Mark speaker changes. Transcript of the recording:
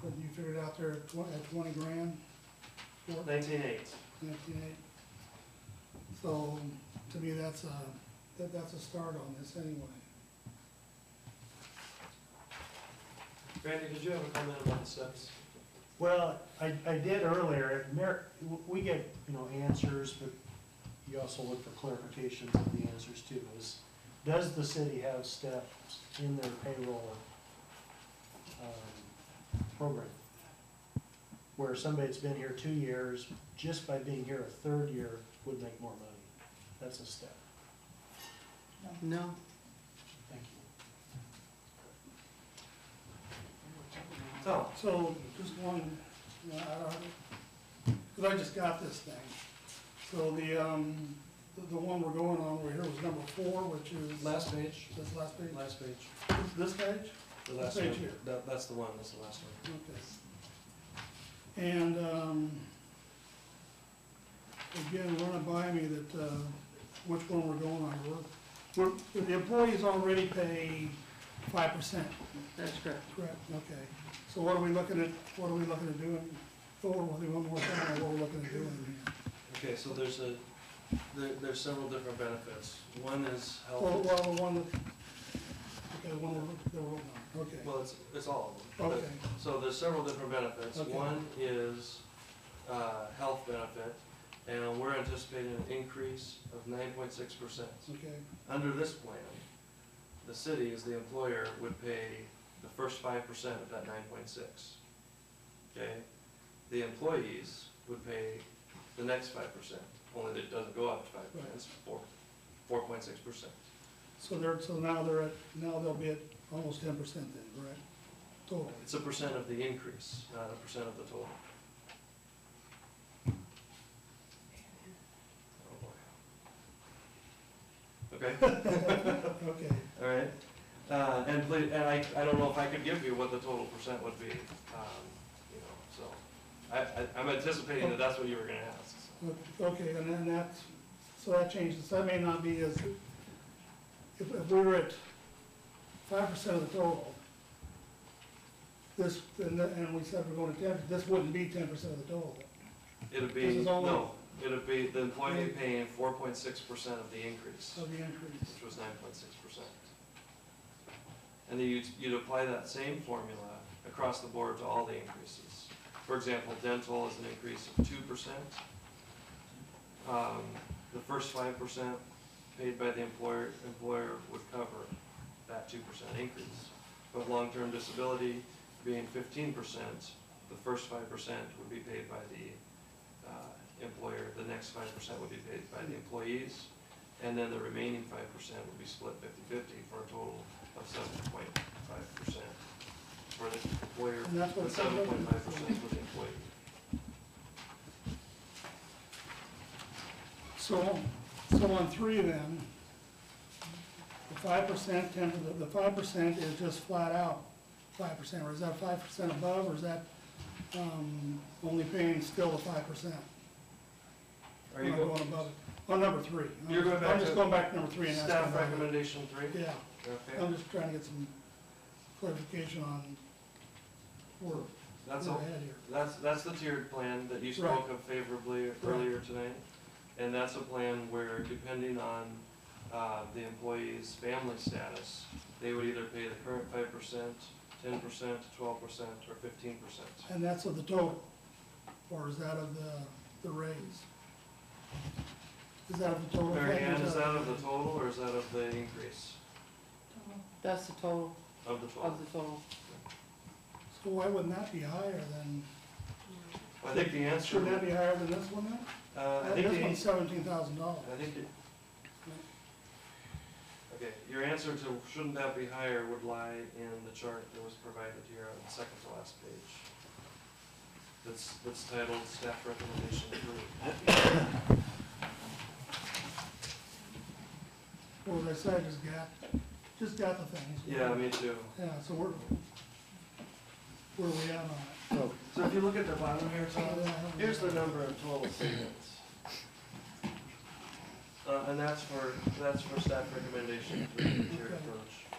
Speaker 1: What you figured out there, at twen- at twenty grand, four,
Speaker 2: Nineteen eight.
Speaker 1: nineteen eight. So, to me, that's a, that, that's a start on this anyway.
Speaker 2: Randy, did you have a comment about the steps?
Speaker 3: Well, I, I did earlier, and Mer, we get, you know, answers, but you also look for clarifications of the answers too, is, does the city have steps in their payroll, um, program? Where somebody's been here two years, just by being here a third year would make more money, that's a step,
Speaker 4: No,
Speaker 3: thank you.
Speaker 2: So,
Speaker 1: So, just one, uh, cause I just got this thing. So the, um, the, the one we're going on over here was number four, which is.
Speaker 2: last page,
Speaker 1: This last page,
Speaker 2: last page,
Speaker 1: this page?
Speaker 2: the last
Speaker 1: Page
Speaker 2: one,
Speaker 1: here.
Speaker 2: that, that's the one, that's the last one.
Speaker 1: Okay. And, um, again, run it by me that, uh, which one we're going on. We're, we're, the employees already pay five percent,
Speaker 4: that's correct.
Speaker 1: correct? Okay. So what are we looking at, what are we looking at doing? Thor, we'll do one more time, what we're looking at doing here.
Speaker 2: Okay, so there's a, there, there's several different benefits. One is
Speaker 1: Well,
Speaker 2: health,
Speaker 1: well, the one, that- okay, the one, we're- the one, we're on. okay,
Speaker 2: well, it's, it's all of them. but-
Speaker 1: okay,
Speaker 2: So there's several different benefits.
Speaker 1: Okay.
Speaker 2: One is uh, health benefit, and we're anticipating an increase of nine point six percent.
Speaker 1: okay,
Speaker 2: Under this plan, the city as the employer would pay the first five percent of that nine point six. Okay? The employees would pay the next five percent, only that it doesn't go up to five percent, it's four, four point six percent.
Speaker 1: so they're, so now they're at, now they'll be at almost ten percent then, correct? Total.
Speaker 2: It's a percent of the increase, not a percent of the total. Oh, Okay,
Speaker 1: Okay,
Speaker 2: all right. Uh, and please, and I, I don't know if I could give you what the total percent would be, um, you know, so. I, I, I'm anticipating that that's what you were gonna ask, so.
Speaker 1: okay, and then that's, so that changes, that may not be as, if, if we were at five percent of the total, this, and, the- and we said we're going to ten, this wouldn't be ten percent of the total.
Speaker 2: It'd be,
Speaker 1: This is all-
Speaker 2: no, it'd be the employee paying four point six percent of the increase.
Speaker 1: Of the increase.
Speaker 2: which was nine point six percent. And then you'd, you'd apply that same formula across the board to all the increases. For example, dental is an increase of two percent. Um, the first five percent paid by the employer, employer would cover that two percent increase. But long-term disability being fifteen percent, the first five percent would be paid by the, uh, employer, the next five percent would be paid by the employees, and then the remaining five percent would be split 50-50 for a total of seven point five percent for the employer,
Speaker 1: And that's what-
Speaker 2: and seven point five percent for the employee.
Speaker 1: So, so on three then, the five percent, ten, the five percent is just flat out five percent, or is that five percent above, or is that, um, only paying still the five percent?
Speaker 2: Are you
Speaker 1: Going
Speaker 2: going,
Speaker 1: above, it. on number three. I'm
Speaker 2: You're going
Speaker 1: just-
Speaker 2: back
Speaker 1: I'm just
Speaker 2: to
Speaker 1: going back to number three and asking
Speaker 2: staff
Speaker 1: about
Speaker 2: recommendation three?
Speaker 1: it. Yeah,
Speaker 2: Okay,
Speaker 1: I'm just trying to get some clarification on where,
Speaker 2: that's
Speaker 1: where
Speaker 2: all,
Speaker 1: we're at here.
Speaker 2: that's, that's the tiered plan that you spoke of favorably earlier tonight. And that's a plan where depending on, uh, the employee's family status, they would either pay the current five percent, ten percent, twelve percent, or fifteen percent.
Speaker 1: And that's of the total, or is that of the, the raise? Is that of the total?
Speaker 2: Mary
Speaker 1: thing, or
Speaker 2: Ann, is that of the total or is that of the increase
Speaker 4: That's the total
Speaker 2: of the
Speaker 4: of
Speaker 2: total?
Speaker 4: the total.
Speaker 1: So why wouldn't that be higher than,
Speaker 2: I think the answer,
Speaker 1: shouldn't that be higher than this one then?
Speaker 2: uh, I think
Speaker 1: This
Speaker 2: the,
Speaker 1: one's seventeen thousand dollars.
Speaker 2: I think it. Okay, your answer to shouldn't that be higher would lie in the chart that was provided here on the second to last page. That's, that's titled staff recommendation approved.
Speaker 1: Well, as I said, I just got, just got the things.
Speaker 2: Yeah, me too.
Speaker 1: Yeah, so we're, where are we at on it?
Speaker 2: So if you look at the bottom here,
Speaker 1: So,
Speaker 2: Tom,
Speaker 1: yeah, I don't-
Speaker 2: Here's the number of total students. Uh, and that's for, that's for staff recommendation for the tier
Speaker 1: Okay.
Speaker 2: approach.